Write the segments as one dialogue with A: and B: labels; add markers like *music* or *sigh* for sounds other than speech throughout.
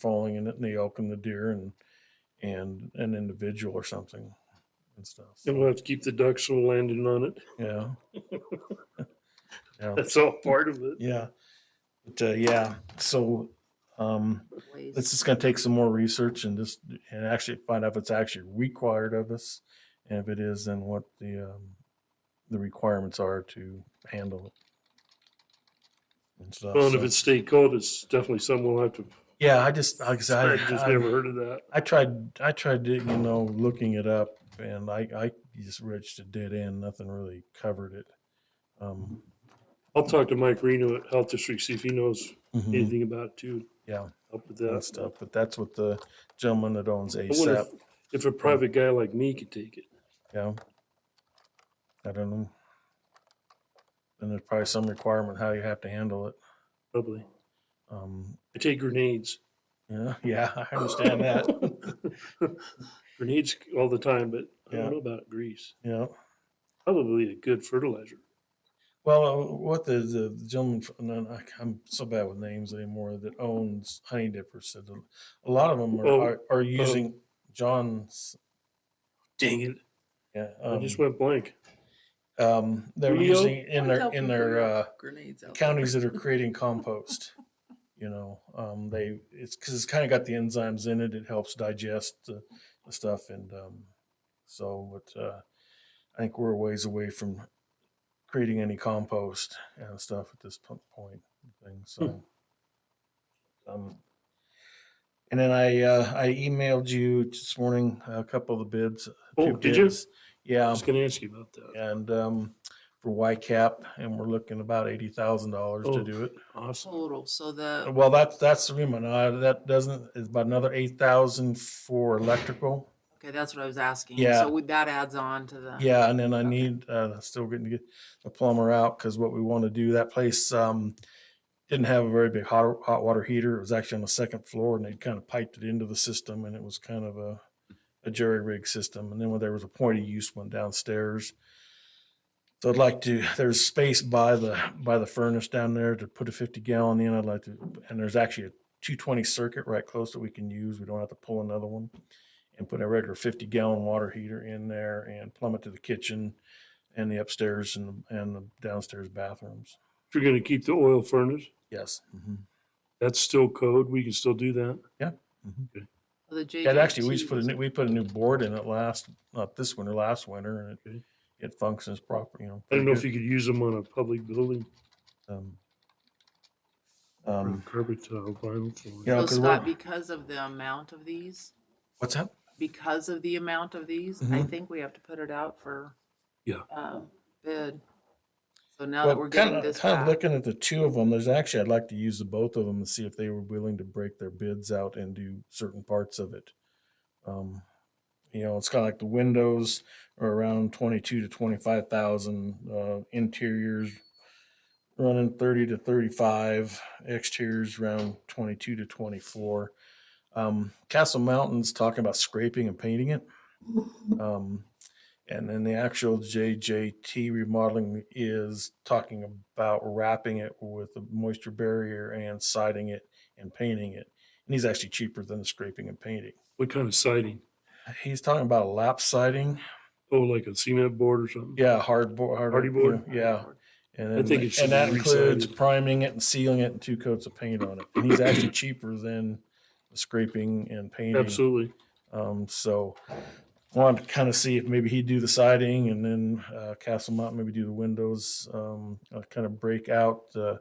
A: falling in it and the elk and the deer and and an individual or something and stuff.
B: And we'll have to keep the ducks from landing on it.
A: Yeah.
B: *laughs*
A: *laughs* yeah.
B: That's all part of it.
A: Yeah. But uh, yeah, so um, it's just going to take some more research and just and actually find out if it's actually required of us, and if it is, then what the um, the requirements are to handle it. And stuff.
B: Well, and if
A: so-
B: it's state code, it's definitely something we'll have to.
A: yeah, I just like I said, I,
B: I just
A: I-
B: never heard of that.
A: I tried I tried to, you know looking it up and I I just reached a dead end. Nothing really covered it. Um,
B: I'll talk to Mike Reno at Health District, see if he knows
A: mhm,
B: anything about it too.
A: Yeah.
B: Help with
A: and
B: that.
A: stuff. But that's what the gentleman that owns
B: uh, I wonder
A: ASAP.
B: if, if a private guy like me could take it.
A: Yeah. I don't know. And there's probably some requirement how you have to handle it.
B: Probably.
A: Um,
B: I take grenades.
A: yeah, *laughs* yeah, I understand
B: *laughs*
A: that.
B: grenades all the time, but I
A: Yeah.
B: don't know about grease.
A: Yeah.
B: Probably a good fertilizer.
A: Well, uh, what the, the gentleman, fr- no, no, I- I'm so bad with names anymore, that owns Honey Dipper said that a lot of them are,
B: Oh,
A: are, are using John's.
B: Dang it.
A: Yeah,
B: I
A: um,
B: just went blank.
A: um, they're
B: Rio?
A: using in their in their uh,
C: Grenades out.
A: counties that are creating compost. You know, um, they it's because it's kind of got the enzymes in it. It helps digest the, the stuff, and um, so but uh, I think we're a ways away from creating any compost and stuff at this po- point. and Things
B: Hmm.
A: so. um, and then I uh, I emailed you this morning a couple of the bids.
B: Oh,
A: two
B: did you?
A: bids. Yeah
B: I was going to ask you about that.
A: and um, for YCAP, and we're looking about eighty thousand dollars
B: Oh.
A: to do it.
B: Awesome.
C: Total, so the,
A: Well, that's that's the remit. Uh, that doesn't is about another eight thousand for electrical.
C: okay, that's what I was asking.
A: Uh, Yeah.
C: So would that adds on to the.
A: Yeah, and then I
C: Okay.
A: need uh, still getting to get the plumber out because what we want to do that place um, didn't have a very big hot hot water heater. It was actually on the second floor, and they'd kind of piped it into the system, and it was kind of a a jury rig system. And then when there was a point of use one downstairs. So I'd like to. There's space by the by the furnace down there to put a 50 gallon in. I'd like to, and there's actually a 220 circuit right close that we can use. We don't have to pull another one and put a regular 50 gallon water heater in there and plumb it to the kitchen and the upstairs and, the- and the downstairs bathrooms.
B: If you're going to keep the oil furnace,
A: Yes.
B: that's still code. We can still do that.
C: The JJT.
A: And actually, we just put a new, we put a new board in it last, not this winter, last winter, and it,
B: Okay.
A: it functions proper, you know.
B: I
A: pretty
B: don't know if
A: good.
B: you could use them on a public building
A: Um,
B: or
A: um,
B: carpet tile, vinyl flooring.
A: Yeah. know,
C: So
A: 'cause we're-
C: Scott, because of the amount of these,
A: what's that?
C: because of the amount of these, I
A: Mhm.
C: think we have to put it out for.
B: Yeah.
C: um, Bid. So now that
A: Well,
C: we're
A: kind
C: getting
A: of,
C: this
A: kind of
C: back,
A: looking at the two of them, there's actually, I'd like to use the both of them and see if they were willing to break their bids out and do certain parts of it. Um, you know, it's kind of like the windows are around twenty-two to twenty-five thousand, uh, interiors running thirty to thirty-five, exteriors around twenty-two to twenty-four. Um, Castle Mountain's talking about scraping and painting it. Um, and then the actual JJT remodeling is talking about wrapping it with a moisture barrier and siding it and painting it. And he's actually cheaper than the scraping and painting.
B: What kind of siding?
A: He's talking about a lap siding.
B: Oh, like a cement board or something?
A: Yeah, hard board. Hard,
B: Hardy
A: you
B: board?
A: know, Yeah. And,
B: I
A: then
B: think
A: the-
B: it should
A: and that
B: be
A: includes
B: resided.
A: priming it and sealing it and two coats of paint on it. And he's actually cheaper than the scraping and painting.
B: Absolutely.
A: Um, so wanted to kind of see if maybe he'd do the siding and then uh, Castle Mountain maybe do the windows, um, uh, kind of break out the,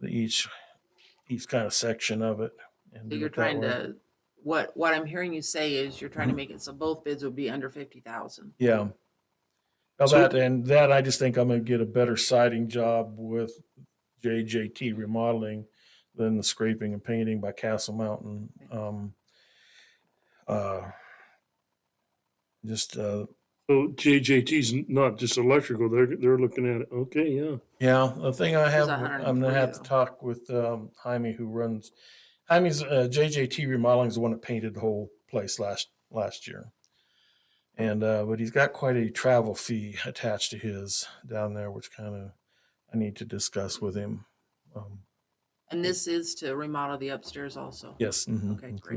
A: the each each kind of section of it. And
C: so
A: do
C: you're
A: it that
C: trying
A: way.
C: to, what, what I'm hearing you say is you're trying to make it so both bids would be under fifty thousand.
A: yeah. Now
B: So-
A: that and that, I just think I'm going to get a better siding job with JJT remodeling than the scraping and painting by Castle Mountain. Um, uh, just uh,
B: So JJT's n- not just electrical. They're, they're looking at it. Okay, yeah.
A: Yeah, the thing I have,
C: a
A: with-
C: hundred and
A: I'm gonna
C: three
A: have to
C: though.
A: talk with um, Jaime who runs. Jaime's uh, JJT Remodeling is the one that painted the whole place last last year, and uh, but he's got quite a travel fee attached to his down there, which kind of I need to discuss with him. Um, And this is to remodel the upstairs also?
C: Yes. mhm,
A: Okay, great.